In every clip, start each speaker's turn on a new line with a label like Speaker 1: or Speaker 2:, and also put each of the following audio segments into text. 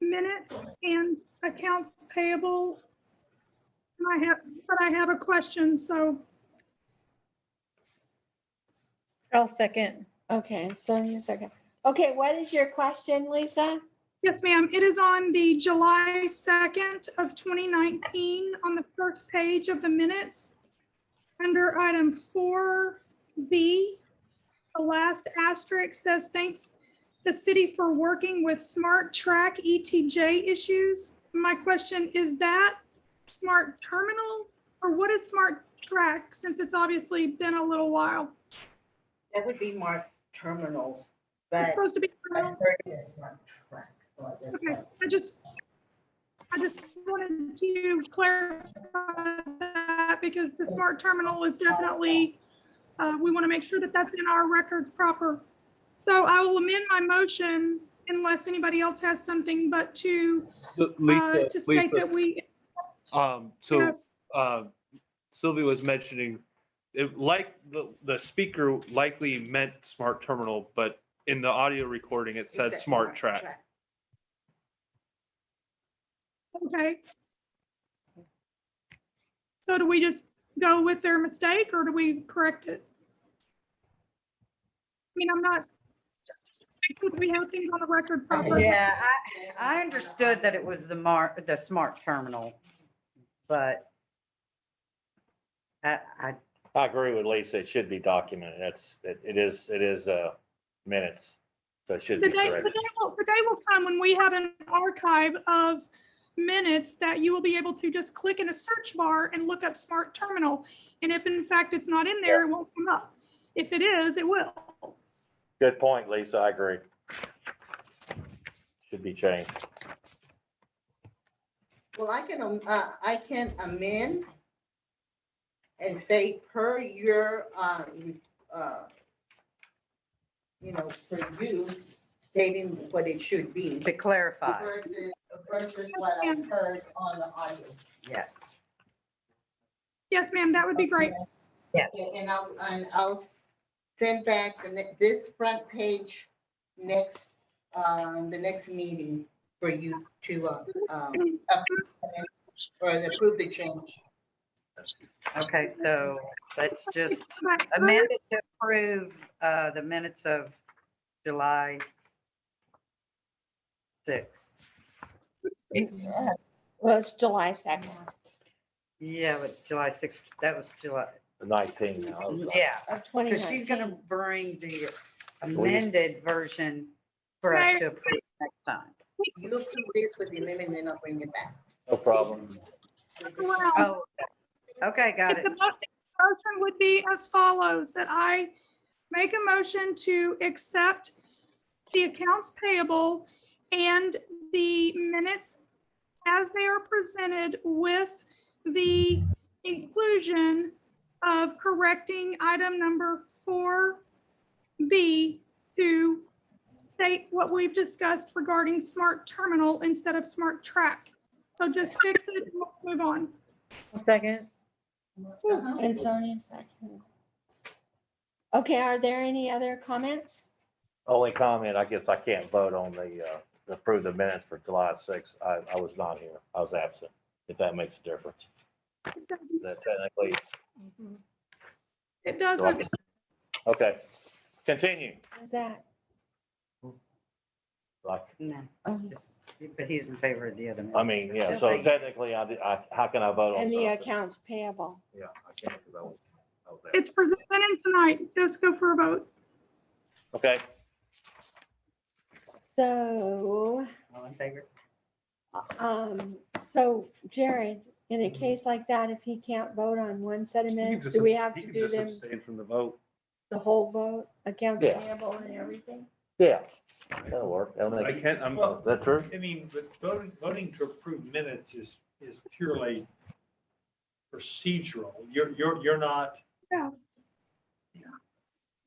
Speaker 1: minutes and accounts payable. And I have, but I have a question, so
Speaker 2: I'll second.
Speaker 3: Okay, Sonia, second. Okay, what is your question, Lisa?
Speaker 1: Yes, ma'am. It is on the July 2nd of 2019, on the first page of the minutes. Under item 4B, the last asterisk says, "Thanks the city for working with Smart Track ETJ issues." My question, is that Smart Terminal? Or what is Smart Track, since it's obviously been a little while?
Speaker 4: That would be marked terminals,
Speaker 1: It's
Speaker 4: but
Speaker 1: supposed to be,
Speaker 4: I heard it's not track, so I guess
Speaker 1: Okay,
Speaker 4: that-
Speaker 1: I just, I just wanted to clarify that because the smart terminal is definitely, uh, we want to make sure that that's in our records proper. So I will amend my motion unless anybody else has something, but to,
Speaker 5: So,
Speaker 1: uh,
Speaker 5: Lisa,
Speaker 1: to state
Speaker 5: Lisa,
Speaker 1: that we.
Speaker 5: um, so,
Speaker 1: Yes,
Speaker 5: uh, Sylvia was mentioning, it like, the, the speaker likely meant smart terminal, but in the audio recording, it said
Speaker 4: It's a
Speaker 5: smart track.
Speaker 1: Okay. So do we just go with their mistake or do we correct it? I mean, I'm not, we have things on the record properly.
Speaker 6: Yeah, I, I understood that it was the mar, the smart terminal, but I, I,
Speaker 7: I agree with Lisa. It should be documented. That's, it it is, it is uh, minutes. So it should
Speaker 1: The
Speaker 7: be
Speaker 1: day, the
Speaker 7: corrected.
Speaker 1: day will, the day will come when we have an archive of minutes that you will be able to just click in a search bar and look up smart terminal. And if in fact it's not in there, it won't come up. If it is, it will.
Speaker 7: Good point, Lisa. I agree. Should be changed.
Speaker 4: Well, I can, um, uh, I can amend and say per your, uh, re- uh, you know, for you stating what it should be.
Speaker 6: to clarify,
Speaker 4: Versus versus what I heard on the audio.
Speaker 6: yes,
Speaker 1: Yes, ma'am, that would be great.
Speaker 6: yes.
Speaker 4: Yeah, And I'll, and I'll send back the, ne- this front page next, um, the next meeting for you to, uh, um, up- or approve the change.
Speaker 6: Okay, so let's just
Speaker 1: But-
Speaker 6: amend it to approve, uh, the minutes of July sixth.
Speaker 3: Well, it's July second.
Speaker 6: Yeah, but July sixth, that was July,
Speaker 7: The 19 now.
Speaker 6: yeah,
Speaker 3: Of
Speaker 6: because she's gonna
Speaker 3: 2019.
Speaker 6: bring the amended version for
Speaker 1: Right.
Speaker 6: us to approve next time.
Speaker 4: You approve this with the amendment, then I'll bring it back.
Speaker 7: No problem.
Speaker 1: Wow.
Speaker 6: Oh, okay, got
Speaker 1: If
Speaker 6: it.
Speaker 1: The mo- motion would be as follows, that I make a motion to accept the accounts payable and the minutes as they are presented with the inclusion of correcting item number four B to state what we've discussed regarding smart terminal instead of smart track. So just fix it, and let's move on.
Speaker 2: I'll Second.
Speaker 4: Uh-huh.
Speaker 3: And Sonia, second. Okay, are there any other comments?
Speaker 7: Only comment, I guess I can't vote on the, uh, approve the minutes for July 6th. I, I was not here. I was absent, if that makes a difference.
Speaker 1: It doesn't
Speaker 7: Is that technically?
Speaker 1: It doesn't.
Speaker 7: Okay. Continue.
Speaker 3: Who's that?
Speaker 7: Like,
Speaker 6: No,
Speaker 8: Oh,
Speaker 3: Um,
Speaker 6: But he's in favor of the other.
Speaker 7: I mean, yeah, so technically, I, did- I, how can I vote on
Speaker 3: And the
Speaker 7: something?
Speaker 3: accounts payable.
Speaker 7: Yeah, I can't because I was, I was there.
Speaker 1: It's presented tonight. Just go for a vote.
Speaker 7: Okay,
Speaker 3: So,
Speaker 6: All in favor?
Speaker 3: um, so Jared, in a case like that, if he can't vote on one set of minutes, do we have to do them
Speaker 5: Abstain from the vote.
Speaker 3: the whole vote, accounts
Speaker 7: Yeah.
Speaker 3: payable and everything?
Speaker 7: yeah, that'll work. That'll
Speaker 8: I
Speaker 7: make,
Speaker 8: can't, I'm,
Speaker 7: is that true?
Speaker 8: I mean, but voting, voting to approve minutes is, is purely procedural. You're, you're, you're not,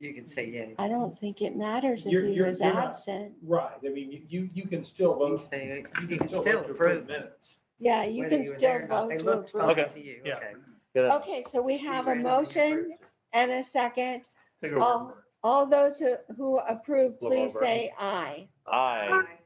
Speaker 6: You can say yay.
Speaker 3: I don't think it matters if
Speaker 8: You're-
Speaker 3: he
Speaker 8: you're-
Speaker 3: was
Speaker 8: you're not-
Speaker 3: absent.
Speaker 8: right, I mean, you- you, you can still
Speaker 6: You
Speaker 8: vote.
Speaker 6: can say, you can
Speaker 8: vote
Speaker 6: still
Speaker 8: to
Speaker 6: approve. it,
Speaker 8: Minutes.
Speaker 3: Yeah, you
Speaker 6: whether
Speaker 3: can
Speaker 6: you were
Speaker 3: still
Speaker 6: there or not.
Speaker 3: vote
Speaker 6: They
Speaker 3: to
Speaker 6: looked
Speaker 3: approve.
Speaker 6: fine
Speaker 7: Okay.
Speaker 6: to you,
Speaker 8: Yeah.
Speaker 6: okay.
Speaker 7: Good.
Speaker 3: Okay, so we have a
Speaker 6: ran out of
Speaker 3: motion and a second.
Speaker 8: Take
Speaker 3: All, all those who, who approve, please say aye.
Speaker 7: Aye.